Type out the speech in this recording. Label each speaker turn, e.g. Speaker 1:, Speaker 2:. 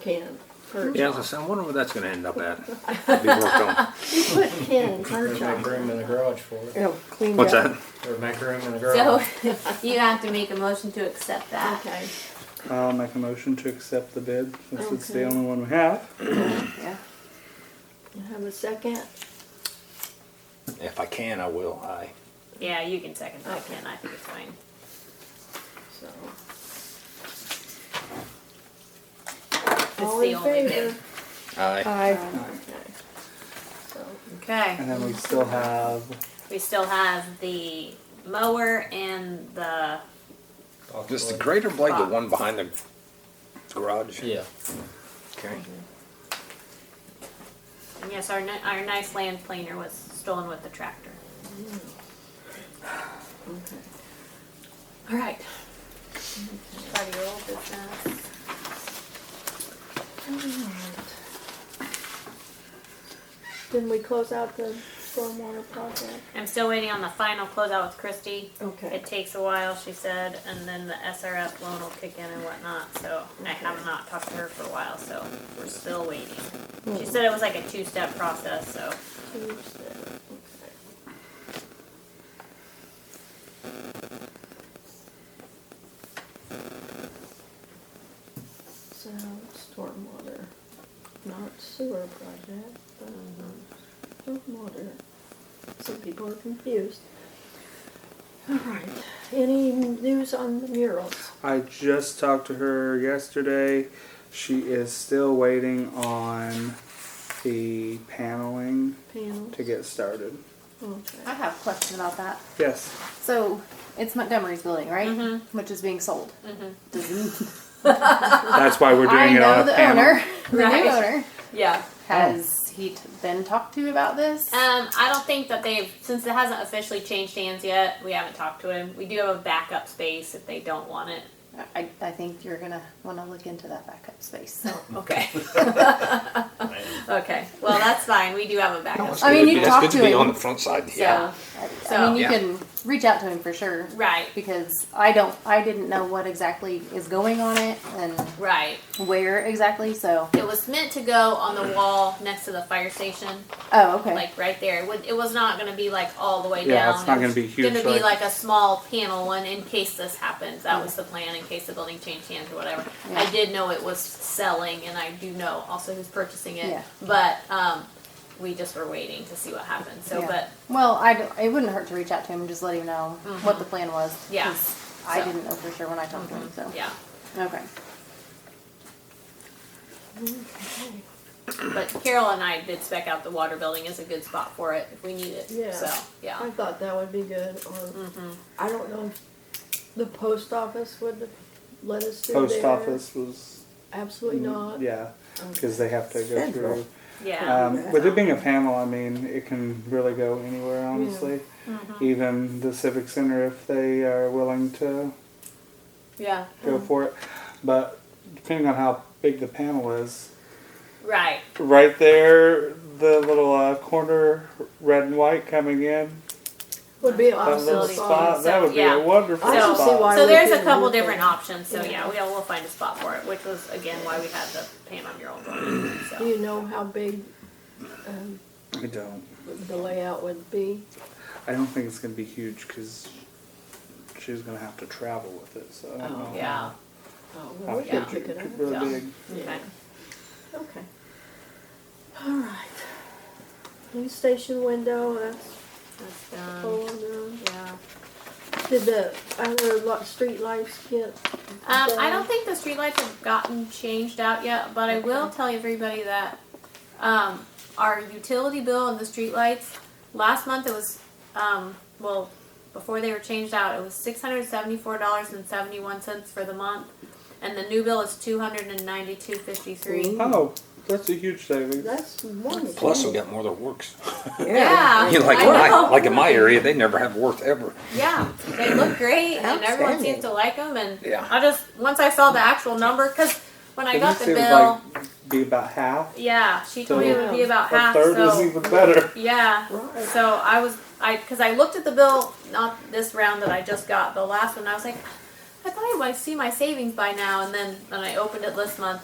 Speaker 1: can. per-
Speaker 2: Yeah, I was- I wonder where that's gonna end up at. Be worked on.
Speaker 1: You put can perch
Speaker 3: Make
Speaker 1: on.
Speaker 3: room in the garage for it,
Speaker 1: Oh, cleaned
Speaker 2: What's
Speaker 1: up.
Speaker 2: that?
Speaker 3: or make room in the
Speaker 4: So
Speaker 3: garage.
Speaker 4: you have to make a motion to accept that.
Speaker 1: Okay.
Speaker 5: I'll make a motion to accept the bid since it's the
Speaker 1: Okay.
Speaker 5: only one we have.
Speaker 4: Yeah.
Speaker 1: You have a second?
Speaker 2: If I can, I will. I.
Speaker 4: Yeah, you can second that,
Speaker 1: Okay.
Speaker 4: Ken. I think it's fine.
Speaker 1: So.
Speaker 4: It's
Speaker 1: All
Speaker 4: the
Speaker 1: in
Speaker 4: only bid.
Speaker 1: favor? Uh,
Speaker 2: I.
Speaker 1: Aye. Okay. So,
Speaker 4: Okay.
Speaker 5: And then we still have
Speaker 4: We still have the mower and the
Speaker 2: Is the greater blade the one behind the garage?
Speaker 3: Yeah.
Speaker 2: Okay.
Speaker 4: and yes, our ni- our nice land planer was stolen with the tractor.
Speaker 1: okay.
Speaker 4: All right. Buddy, your old business.
Speaker 1: Didn't we close out the stormwater project?
Speaker 4: I'm still waiting on the final closeout with Christy.
Speaker 1: Okay.
Speaker 4: It takes a while, she said, and then the SRF loan will kick in and whatnot, so I have not talked to her for a while, so we're still waiting. She said it was like a two-step process, so,
Speaker 1: Tuesday, okay. So, stormwater, not sewer project, but stormwater. Some people are confused. All right, any news on the murals?
Speaker 5: I just talked to her yesterday. She is still waiting on the paneling
Speaker 1: Panels?
Speaker 5: to get started.
Speaker 6: I
Speaker 1: Okay.
Speaker 6: have a question about that.
Speaker 5: Yes.
Speaker 6: So it's Montgomery's building, right?
Speaker 4: Mm-hmm.
Speaker 6: Which is being sold. Does-
Speaker 5: That's why we're doing
Speaker 6: I
Speaker 5: it
Speaker 6: know
Speaker 5: on a
Speaker 6: the
Speaker 5: panel.
Speaker 6: owner, the
Speaker 4: Right. Oh.
Speaker 6: new owner.
Speaker 4: yeah.
Speaker 6: Has he t- been talked to about this?
Speaker 4: Um, I don't think that they've, since it hasn't officially changed hands yet, we haven't talked to him. We do have a backup space if they don't want it.
Speaker 6: I, I think you're gonna want to look into that backup space.
Speaker 4: Okay. Okay, well, that's fine, we do have a backup.
Speaker 6: I mean, you
Speaker 2: It's
Speaker 6: talk
Speaker 2: good to
Speaker 6: to
Speaker 2: be
Speaker 6: him.
Speaker 2: on the front side.
Speaker 4: So,
Speaker 6: I, I
Speaker 4: So-
Speaker 6: mean, you
Speaker 2: Yeah.
Speaker 6: can reach out to him for sure.
Speaker 4: right,
Speaker 6: Because I don't, I didn't know what exactly is going on it and
Speaker 4: right.
Speaker 6: where exactly. So,
Speaker 4: It was meant to go on the wall next to the fire station.
Speaker 6: oh, okay.
Speaker 4: like right there. It, would, it was not going to be like all the way
Speaker 5: Yeah,
Speaker 4: down.
Speaker 5: it's not
Speaker 4: It was
Speaker 5: gonna be huge,
Speaker 4: Going to be like
Speaker 5: like-
Speaker 4: a small panel one in case this happens. That was the plan in case the building changed hands or whatever.
Speaker 6: Yeah.
Speaker 4: I did know it was selling, and I do know also who's purchasing it.
Speaker 6: Yeah.
Speaker 4: But um, we just were waiting to see what happened. So,
Speaker 6: Yeah.
Speaker 4: but
Speaker 6: well, I d- it wouldn't hurt to reach out to him and just let him know what the plan was.
Speaker 4: Mm-hmm. Yeah.
Speaker 6: 'cause I
Speaker 4: So-
Speaker 6: didn't know for sure when I talked to him. So
Speaker 4: yeah,
Speaker 6: okay,
Speaker 1: Okay.
Speaker 4: but Carol and I did spec out the water building as a good spot for it if we need it.
Speaker 1: Yeah.
Speaker 4: So
Speaker 1: I
Speaker 4: yeah,
Speaker 1: thought that would be good, or, I don't know if the post office would let us do
Speaker 5: Post
Speaker 1: there.
Speaker 5: office was.
Speaker 1: Absolutely not.
Speaker 5: Yeah,
Speaker 1: Okay.
Speaker 5: because they have to go through.
Speaker 4: yeah,
Speaker 5: Um, with it being a panel, I mean, it can really go anywhere, honestly.
Speaker 6: Mm-hmm.
Speaker 5: Even the Civic Center, if they are willing to
Speaker 4: yeah.
Speaker 5: go for it. But depending on how big the panel is,
Speaker 4: Right.
Speaker 5: right there, the little uh, corner, red and white coming in,
Speaker 1: Would be an
Speaker 5: that little
Speaker 1: awesome
Speaker 4: Facility.
Speaker 5: spot,
Speaker 1: spot.
Speaker 5: that would be
Speaker 4: Yeah.
Speaker 5: a wonderful
Speaker 1: I
Speaker 4: don't
Speaker 5: spot.
Speaker 4: see
Speaker 1: why- I
Speaker 4: So
Speaker 1: would
Speaker 4: there's
Speaker 1: do
Speaker 4: a couple
Speaker 1: anything.
Speaker 4: different options. So
Speaker 1: Yeah.
Speaker 4: yeah, we will find a spot for it, which was again why we had the Panama mural going.
Speaker 1: Do
Speaker 4: So
Speaker 1: you know how big um,
Speaker 5: I don't.
Speaker 1: the layout would be?
Speaker 5: I don't think it's going to be huge because she's going to have to travel with it. So I don't
Speaker 1: Oh,
Speaker 5: know.
Speaker 4: yeah,
Speaker 1: Oh,
Speaker 5: How
Speaker 1: well, we
Speaker 5: big
Speaker 1: can
Speaker 4: yeah.
Speaker 5: it
Speaker 1: pick it
Speaker 5: could
Speaker 1: up.
Speaker 5: really
Speaker 4: Yeah.
Speaker 5: be.
Speaker 4: okay.
Speaker 1: Okay. All right. New station window, that's
Speaker 4: That's done.
Speaker 1: all done.
Speaker 4: Yeah.
Speaker 1: Did the other lot, street lights get?
Speaker 4: Um, I
Speaker 1: done?
Speaker 4: don't think the streetlights have gotten changed out yet, but I will tell everybody that um, our utility bill and the streetlights last month it was um, well before they were changed out it was six hundred seventy four dollars and seventy one cents for the month, and the new bill is two hundred and ninety two fifty three.
Speaker 5: Oh, that's a huge savings.
Speaker 1: That's wonderful.
Speaker 2: Plus, we got more that works.
Speaker 4: Yeah,
Speaker 2: You know, like
Speaker 4: I
Speaker 2: in my,
Speaker 4: know.
Speaker 2: like in my area, they never have worth ever.
Speaker 4: Yeah, they look great, and everyone
Speaker 1: Outstanding.
Speaker 4: seems to like them. And
Speaker 2: Yeah.
Speaker 4: I just once I saw the actual number, because when I
Speaker 5: It
Speaker 4: got
Speaker 5: just
Speaker 4: the
Speaker 5: seems
Speaker 4: bill,
Speaker 5: like be about half.
Speaker 4: yeah, she told me it would be about
Speaker 5: a
Speaker 4: half.
Speaker 5: third
Speaker 4: So
Speaker 5: is even better.
Speaker 4: yeah,
Speaker 1: Right.
Speaker 4: so I was I because I looked at the bill not this round that I just got, the last one. I was like, I thought I might see my savings by now, and then when I opened it this month,